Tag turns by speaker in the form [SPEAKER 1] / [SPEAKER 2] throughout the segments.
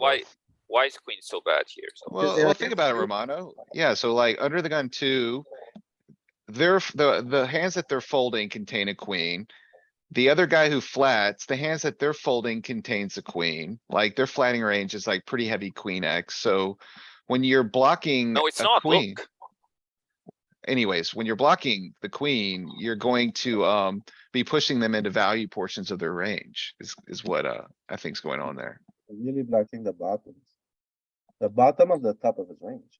[SPEAKER 1] Why, why is queen so bad here? So
[SPEAKER 2] Well,
[SPEAKER 3] there
[SPEAKER 2] well,
[SPEAKER 3] like
[SPEAKER 2] think
[SPEAKER 3] a
[SPEAKER 2] about it,
[SPEAKER 3] two?
[SPEAKER 2] Romano. Yeah, so like under the gun two. They're, f- the, the hands that they're folding contain a queen. The other guy who flats, the hands that they're folding contains a queen. Like their flatting range is like pretty heavy queen X, so. When you're blocking
[SPEAKER 1] No, it's
[SPEAKER 2] Mm, a
[SPEAKER 1] not,
[SPEAKER 2] queen,
[SPEAKER 1] look.
[SPEAKER 2] anyways, when you're blocking the queen, you're going to, um, be pushing them into value portions of their range. Is, is what, uh, I think's going on there.
[SPEAKER 3] really blocking the bottoms. The bottom of the top of his range.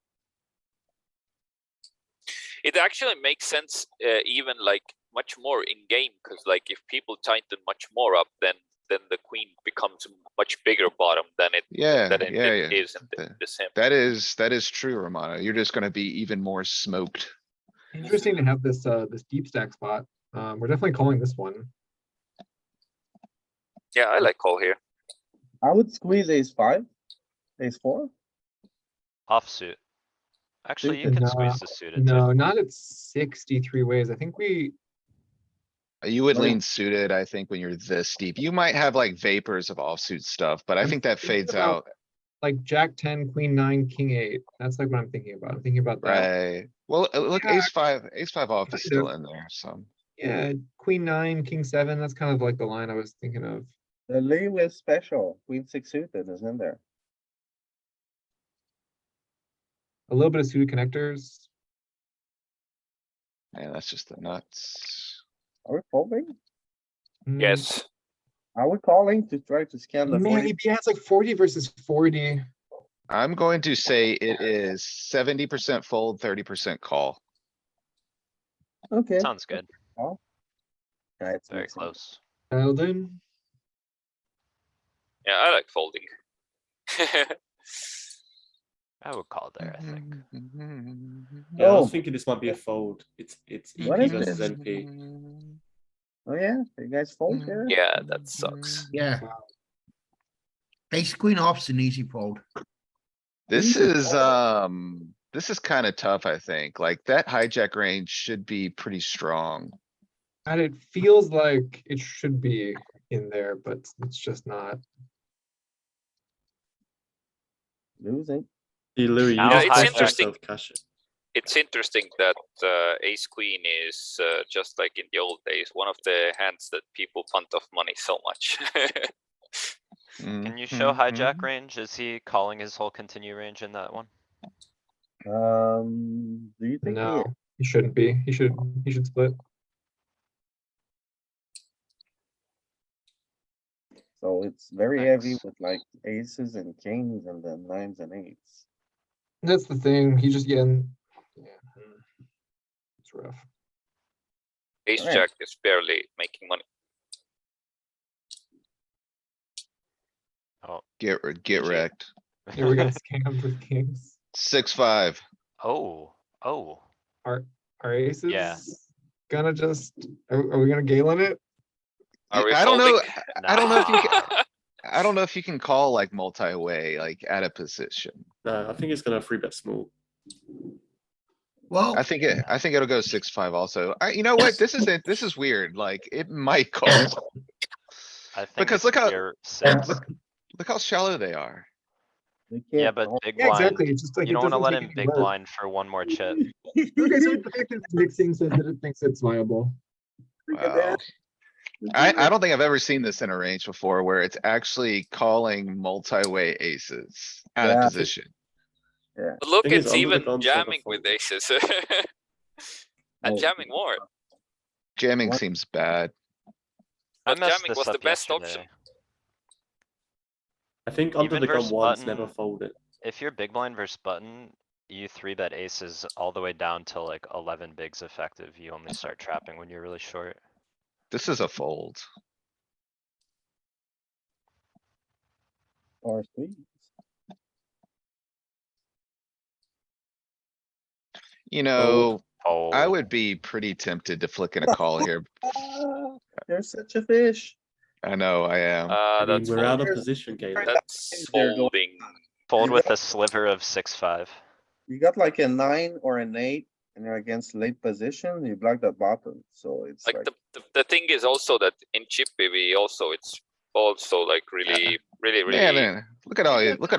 [SPEAKER 1] It actually makes sense, uh, even like much more in game, cuz like if people tighten much more up, then, then the queen becomes a much bigger bottom than it,
[SPEAKER 2] Yeah,
[SPEAKER 1] than it-
[SPEAKER 2] Uh, yeah,
[SPEAKER 1] it
[SPEAKER 2] yeah.
[SPEAKER 1] is in the-
[SPEAKER 2] The-
[SPEAKER 1] the sim.
[SPEAKER 2] That is, that is true, Romano. You're just gonna be even more smoked.
[SPEAKER 4] Interesting to have this uh this deep stack spot. Um, we're definitely calling this one.
[SPEAKER 1] Yeah, I like call here.
[SPEAKER 3] I would squeeze ace five, ace four.
[SPEAKER 5] Offsuit. Actually, you
[SPEAKER 4] is
[SPEAKER 5] can
[SPEAKER 4] not-
[SPEAKER 5] squeeze the suited
[SPEAKER 4] No,
[SPEAKER 5] too.
[SPEAKER 4] not at sixty-three ways. I think we,
[SPEAKER 2] You would
[SPEAKER 3] Oh, yeah.
[SPEAKER 2] lean suited, I think, when you're this deep. You might have like vapors of offsuit stuff, but I
[SPEAKER 4] I'm
[SPEAKER 2] think that
[SPEAKER 4] thinking
[SPEAKER 2] fades
[SPEAKER 4] about-
[SPEAKER 2] out,
[SPEAKER 4] like Jack ten, Queen nine, King eight. That's like what I'm thinking about. I'm thinking about that.
[SPEAKER 2] right? Well, uh, look,
[SPEAKER 4] Yeah,
[SPEAKER 2] ace five, ace five off is
[SPEAKER 4] kind
[SPEAKER 2] still in there, so.
[SPEAKER 4] Yeah, Queen nine, King seven. That's kind of like the line I was thinking of.
[SPEAKER 3] The Lewis special, queen six suited is in there.
[SPEAKER 4] A little bit of suited connectors.
[SPEAKER 2] Man, that's just the nuts.
[SPEAKER 3] Are we folding?
[SPEAKER 4] Mm,
[SPEAKER 1] Yes,
[SPEAKER 3] Are we calling to try to scan the
[SPEAKER 4] Man, he
[SPEAKER 3] forty?
[SPEAKER 4] he has like forty versus forty.
[SPEAKER 2] I'm going to say it is seventy percent fold, thirty percent call.
[SPEAKER 3] Okay.
[SPEAKER 5] Sounds good.
[SPEAKER 3] Yeah, it's
[SPEAKER 5] Very
[SPEAKER 3] mixed up.
[SPEAKER 5] close.
[SPEAKER 4] Dialed in.
[SPEAKER 1] yeah, I like folding.
[SPEAKER 5] I would call there, I think.
[SPEAKER 6] Yeah, I
[SPEAKER 3] Oh.
[SPEAKER 6] was thinking this might be a fold. It's it's EP
[SPEAKER 3] What is
[SPEAKER 6] versus
[SPEAKER 3] this?
[SPEAKER 6] NP.
[SPEAKER 3] Oh, yeah, you guys fold here?
[SPEAKER 1] Yeah, that sucks.
[SPEAKER 7] Yeah. Ace queen off's an easy fold.
[SPEAKER 2] This is, um, this is kinda tough, I think. Like that hijack range should be pretty strong.
[SPEAKER 4] And it feels like it should be in there, but it's just not.
[SPEAKER 3] Losing.
[SPEAKER 6] Hey, Louis,
[SPEAKER 5] Now
[SPEAKER 6] you
[SPEAKER 1] it's
[SPEAKER 6] just priced
[SPEAKER 1] interesting.
[SPEAKER 6] yourself cash.
[SPEAKER 1] It's interesting that uh, ace queen is uh, just like in the old days, one of the hands that people punt off money so much.
[SPEAKER 2] Can
[SPEAKER 5] Can you
[SPEAKER 1] Mm-hmm,
[SPEAKER 5] show
[SPEAKER 2] Mm-hmm.
[SPEAKER 5] hijack range? Is he calling his whole continue range in that one?
[SPEAKER 3] Um, do you think? he-
[SPEAKER 4] No, he shouldn't be. He should. He should split.
[SPEAKER 3] So it's very heavy
[SPEAKER 5] Thanks.
[SPEAKER 3] with like aces and kings and then nines and eights.
[SPEAKER 4] That's the thing. He just getting. Yeah. mm. It's rough.
[SPEAKER 1] Ace
[SPEAKER 3] Alright.
[SPEAKER 1] jack is barely making money.
[SPEAKER 2] Get, re- get
[SPEAKER 5] GG.
[SPEAKER 2] wrecked.
[SPEAKER 4] Yeah, we got scammed with kings.
[SPEAKER 2] Six, five.
[SPEAKER 5] Oh, oh,
[SPEAKER 4] Our our aces.
[SPEAKER 5] Yeah.
[SPEAKER 4] Gonna just. Are, are we gonna Galen it?
[SPEAKER 2] I
[SPEAKER 1] Are we
[SPEAKER 2] I don't know,
[SPEAKER 1] folding?
[SPEAKER 2] I don't know if you, ca-
[SPEAKER 5] nah.
[SPEAKER 2] I don't know if you can call like multi-way, like at a position.
[SPEAKER 6] No, I think it's gonna free bet small.
[SPEAKER 7] Well,
[SPEAKER 2] I think it, I think it'll go six, five also. I, you know what? This is, it. this is weird. Like it might call.
[SPEAKER 5] I think
[SPEAKER 2] Because
[SPEAKER 5] it's
[SPEAKER 2] look how-
[SPEAKER 5] your six.
[SPEAKER 2] look- Look how shallow they are.
[SPEAKER 3] They
[SPEAKER 5] Yeah,
[SPEAKER 3] can't
[SPEAKER 5] but
[SPEAKER 3] fold.
[SPEAKER 5] big
[SPEAKER 4] Yeah,
[SPEAKER 5] blind,
[SPEAKER 4] exactly. It's just like
[SPEAKER 5] you
[SPEAKER 4] it
[SPEAKER 5] don't wanna
[SPEAKER 4] doesn't
[SPEAKER 5] let
[SPEAKER 4] take
[SPEAKER 5] him
[SPEAKER 4] any
[SPEAKER 5] big
[SPEAKER 4] work.
[SPEAKER 5] blind for one more chip.
[SPEAKER 4] Okay, so the fact that it's mixing says that it thinks it's viable.
[SPEAKER 3] Look at
[SPEAKER 2] Wow.
[SPEAKER 3] that.
[SPEAKER 2] I, I don't think I've ever seen this in a range before where it's actually calling multi-way aces out of
[SPEAKER 3] Yeah.
[SPEAKER 2] position.
[SPEAKER 1] But Look,
[SPEAKER 6] Thing is,
[SPEAKER 1] it's
[SPEAKER 6] under the
[SPEAKER 1] even
[SPEAKER 6] gun sort of
[SPEAKER 1] jamming with
[SPEAKER 6] fold.
[SPEAKER 1] aces.
[SPEAKER 3] Oh.
[SPEAKER 1] And jamming more.
[SPEAKER 2] um,
[SPEAKER 1] Uh,
[SPEAKER 2] Jamming
[SPEAKER 3] What?
[SPEAKER 2] seems bad.
[SPEAKER 5] I
[SPEAKER 1] But
[SPEAKER 5] messed
[SPEAKER 1] jamming
[SPEAKER 5] this
[SPEAKER 1] was the
[SPEAKER 5] up
[SPEAKER 1] best option.
[SPEAKER 5] yesterday.
[SPEAKER 6] I think under
[SPEAKER 5] Even
[SPEAKER 6] the gun
[SPEAKER 5] versus
[SPEAKER 6] once
[SPEAKER 5] button-
[SPEAKER 6] never folded.
[SPEAKER 5] If you're big blind versus button, you three bet aces all the way down to like eleven bigs effective. You only start trapping when you're really short.
[SPEAKER 2] This is a fold.
[SPEAKER 3] Or squeeze.
[SPEAKER 2] You know,
[SPEAKER 5] Oh.
[SPEAKER 2] I would be pretty tempted to flick in a call here.
[SPEAKER 3] Ah, You're such a fish.
[SPEAKER 2] I know I am.
[SPEAKER 1] Uh,
[SPEAKER 5] Ah,
[SPEAKER 6] I mean,
[SPEAKER 1] that's
[SPEAKER 6] we're out of
[SPEAKER 1] folding.
[SPEAKER 3] folded.
[SPEAKER 6] position, Galen.
[SPEAKER 1] That's
[SPEAKER 3] There you go.
[SPEAKER 1] folding.
[SPEAKER 5] Fold with a sliver of six, five.
[SPEAKER 3] You got like a nine or an eight and you're against late position, you block the bottom, so it's
[SPEAKER 1] Like
[SPEAKER 3] like.
[SPEAKER 1] the, the, the thing is also that in Chippy, we also, it's
[SPEAKER 8] also like really, really, really.
[SPEAKER 1] Yeah, man, look at all, you- look at